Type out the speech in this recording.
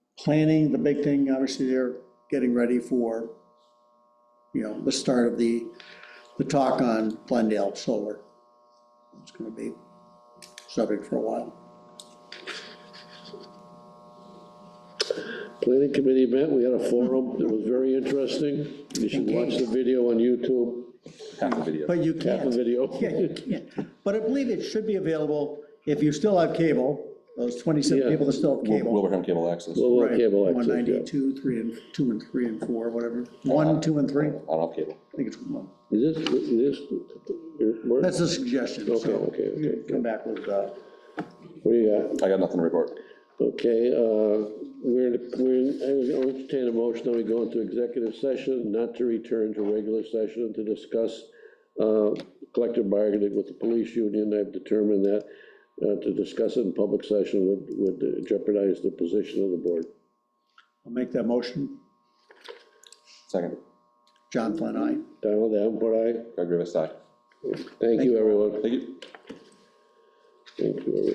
Planning, the big thing, obviously, they're getting ready for, you know, the start of the, the talk on Glendale Solar. It's gonna be subject for a while. Planning committee met, we had a forum, it was very interesting. You should watch the video on YouTube, Half the video. But you half the can't, video. yeah, you can't. But I believe it should be available if you still have cable, those Yeah. twenty-seven people that still have cable. Wilbraham Cable Access. I Well, Right, cable access, yeah. 192, 3 and, 2 and 3 and 4, whatever. 1, 2, and 3, I don't have cable. think it's 1. Is this, is this, your- where- That's a suggestion, so. Okay, okay, okay. you can Come back with, uh, what do you got? I got nothing to report. Okay, uh, we're, we're, I'll entertain a motion that we go into executive session, not to return to regular session to discuss uh, collective bargaining with the police union. I've determined that uh, to discuss it in public session would, would jeopardize the position of the board. I'll make that motion. Second, John Flynn, aye. Donald Davenport, aye. Greg Rivers, aye. Thank you, everyone. Thank you. Thank you, everyone.